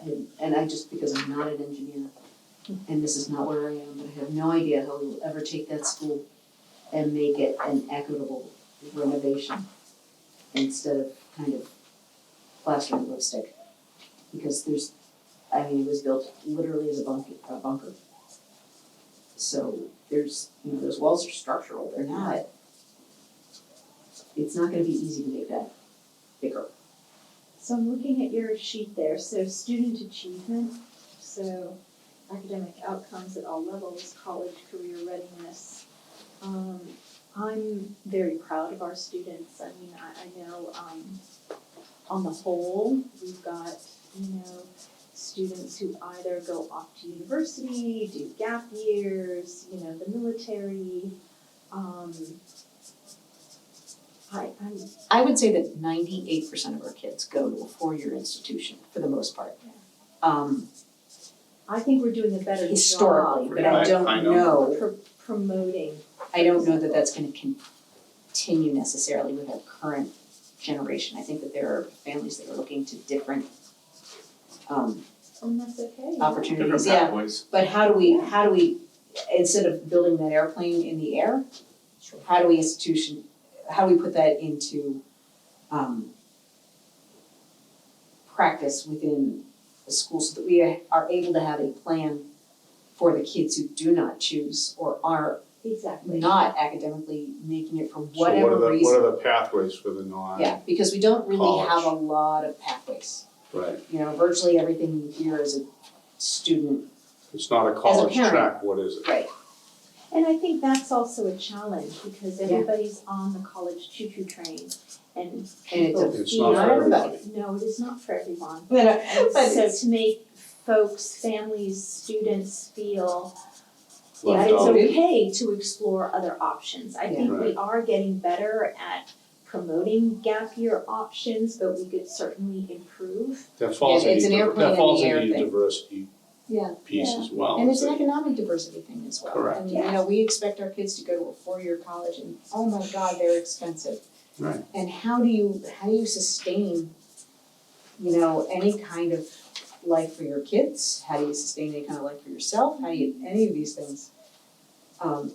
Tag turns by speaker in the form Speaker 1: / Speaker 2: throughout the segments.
Speaker 1: and, and I just, because I'm not an engineer, and this is not where I am, but I have no idea how we will ever take that school and make it an equitable renovation instead of kind of plaster and lipstick. Because there's, I mean, it was built literally as a bunker, a bunker. So there's, you know, those walls are structural, they're not. It's not gonna be easy to make that bigger.
Speaker 2: So I'm looking at your sheet there, so student achievement, so academic outcomes at all levels, college career readiness. Um, I'm very proud of our students, I mean, I, I know, um, on the whole, we've got, you know, students who either go off to university, do gap years, you know, the military, um, I, I'm
Speaker 1: I would say that ninety-eight percent of our kids go to a four-year institution for the most part.
Speaker 2: Yeah.
Speaker 1: Um,
Speaker 2: I think we're doing a better
Speaker 1: historically,
Speaker 2: job
Speaker 1: but I
Speaker 3: Right,
Speaker 1: don't
Speaker 3: I know.
Speaker 1: know,
Speaker 2: pro- promoting.
Speaker 1: I don't know that that's gonna continue necessarily with our current generation. I think that there are families that are looking to different um
Speaker 2: Oh, And that's okay.
Speaker 1: opportunities,
Speaker 3: Different
Speaker 1: yeah.
Speaker 3: pathways.
Speaker 1: But how do we, how do we, instead of building that airplane in the air, how do we institution, how do we put that into um practice within the school so that we are able to have a plan for the kids who do not choose or are
Speaker 2: Exactly.
Speaker 1: not academically making it for
Speaker 4: So what are the-
Speaker 1: whatever reason?
Speaker 4: What are the pathways for the non?
Speaker 1: Yeah, because we don't really
Speaker 4: College.
Speaker 1: have a lot of pathways.
Speaker 4: Right,
Speaker 1: You know, virtually everything you hear is a student,
Speaker 4: it's not a college
Speaker 1: parent.
Speaker 4: track, what is it?
Speaker 1: right,
Speaker 2: And I think that's also a challenge because
Speaker 1: Yeah.
Speaker 2: everybody's on the college choo-choo train and
Speaker 1: and it's a
Speaker 2: people
Speaker 4: It's not
Speaker 2: feel-
Speaker 4: for everybody.
Speaker 2: No, it is not for everyone.
Speaker 1: But, uh,
Speaker 2: And
Speaker 1: but
Speaker 2: so
Speaker 1: it's-
Speaker 2: to make folks, families, students feel that
Speaker 4: Left
Speaker 2: it's
Speaker 4: out.
Speaker 2: okay to explore other options. I think we
Speaker 4: Right.
Speaker 2: are getting better at promoting gap year options, but we could certainly improve.
Speaker 4: That falls
Speaker 1: Yeah, it's
Speaker 4: into,
Speaker 1: an
Speaker 4: diver-
Speaker 1: airplane in
Speaker 4: that falls
Speaker 1: the air
Speaker 4: into the
Speaker 1: thing.
Speaker 4: diversity
Speaker 1: yeah,
Speaker 4: piece
Speaker 2: Yeah.
Speaker 4: as well.
Speaker 1: and it's an
Speaker 4: that-
Speaker 1: economic diversity thing as well.
Speaker 4: Correct.
Speaker 1: And, you know, we expect our kids to go to a four-year college and, oh my God, they're expensive.
Speaker 4: Right.
Speaker 1: And how do you, how do you sustain, you know, any kind of life for your kids? How do you sustain any kind of life for yourself? How do you, any of these things? Um,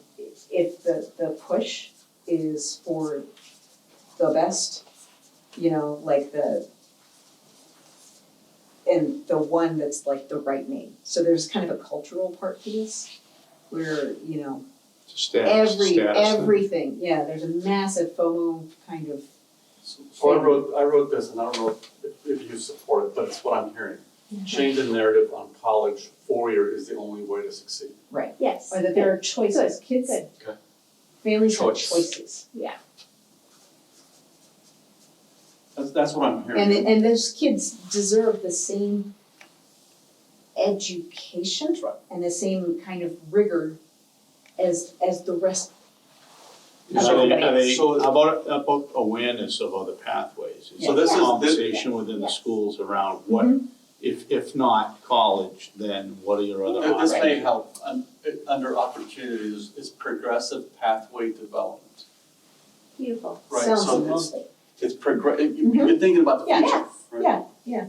Speaker 1: if the, the push is for the best, you know, like the and the one that's like the right name. So there's kind of a cultural part to this where, you know,
Speaker 4: It's a status, status
Speaker 1: every
Speaker 4: thing.
Speaker 1: everything, yeah, there's a massive FOMO kind of
Speaker 5: So Oh, I wrote, I wrote this, and I don't know if- if you support it, but it's what I'm hearing.
Speaker 1: Mm-hmm.
Speaker 5: Change the narrative on college, four-year is the only way to succeed.
Speaker 2: Yes.
Speaker 1: or that there are choices. Kids
Speaker 2: good.
Speaker 5: Okay.
Speaker 1: families have
Speaker 5: Choice.
Speaker 1: choices.
Speaker 5: That's, that's what I'm
Speaker 1: And
Speaker 5: hearing.
Speaker 1: and those kids deserve the same education
Speaker 5: That's right.
Speaker 1: and the same kind of rigor as as the rest.
Speaker 4: Are they- are they-
Speaker 5: So-
Speaker 4: how about, how about awareness of other pathways? Is
Speaker 5: So
Speaker 4: there
Speaker 5: this is- this-
Speaker 4: Conversation within the
Speaker 2: Yes.
Speaker 4: schools around what,
Speaker 1: Mm-hmm.
Speaker 4: if, if not college, then what are your other
Speaker 5: Uh, This
Speaker 4: options?
Speaker 5: may help, Un- uh, under opportunities is progressive pathway development.
Speaker 2: Beautiful.
Speaker 5: Right,
Speaker 1: Sounds
Speaker 5: so it's-
Speaker 1: lovely.
Speaker 5: It's progress, you've been thinking about the
Speaker 1: Yeah.
Speaker 5: future, right?
Speaker 1: Yeah, yeah.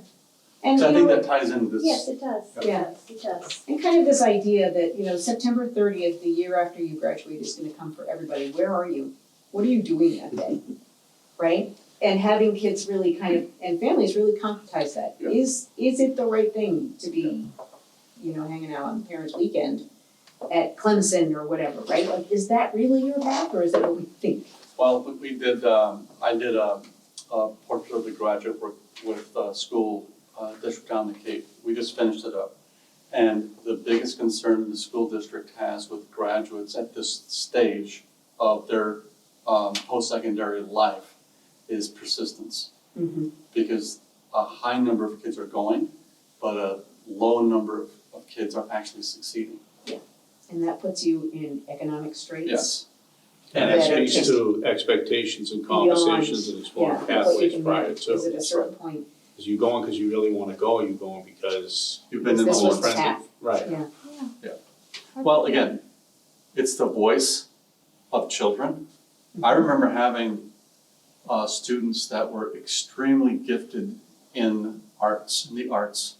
Speaker 1: And
Speaker 5: So I
Speaker 1: you
Speaker 5: think
Speaker 1: know,
Speaker 5: that ties into this.
Speaker 2: Yes, it does. It
Speaker 1: Yeah.
Speaker 2: does. It does.
Speaker 1: And kind of this idea that, you know, September thirtieth, the year after you graduate is gonna come for everybody, where are you? What are you doing that day? Right? And having kids really kind of, and families really concretize that.
Speaker 5: Yeah.
Speaker 1: Is, is it the right thing to be, you know, hanging out on parents' weekend at Clemson or whatever, right? Like, is that really your path or is that what we think?
Speaker 5: Well, we- we did, um, I did a, a portrait of the graduate work with uh school, uh, district down the Cape. We just finished it up. And the biggest concern the school district has with graduates at this stage of their, um, post-secondary life is persistence.
Speaker 4: Mm-hmm.
Speaker 5: Because a high number of kids are going, but a low number of, of kids are actually succeeding.
Speaker 1: And that puts you in economic straits.
Speaker 5: Yes.
Speaker 4: And
Speaker 1: Yeah,
Speaker 4: that
Speaker 1: it's
Speaker 4: speaks
Speaker 1: just-
Speaker 4: to expectations and
Speaker 1: Beyond,
Speaker 4: conversations and exploring
Speaker 1: Yeah, what you
Speaker 4: pathways
Speaker 1: can
Speaker 4: prior
Speaker 1: manage,
Speaker 4: to.
Speaker 1: is at a certain point,
Speaker 4: Is you going because you really wanna go, or you going because
Speaker 5: You've been
Speaker 1: this
Speaker 5: in the
Speaker 1: was
Speaker 5: whole
Speaker 4: old friends
Speaker 1: tough.
Speaker 4: have- Right.
Speaker 2: Yeah.
Speaker 5: Yeah. Well, again, it's the voice of children. I remember having uh, students that were extremely gifted in arts, in the arts,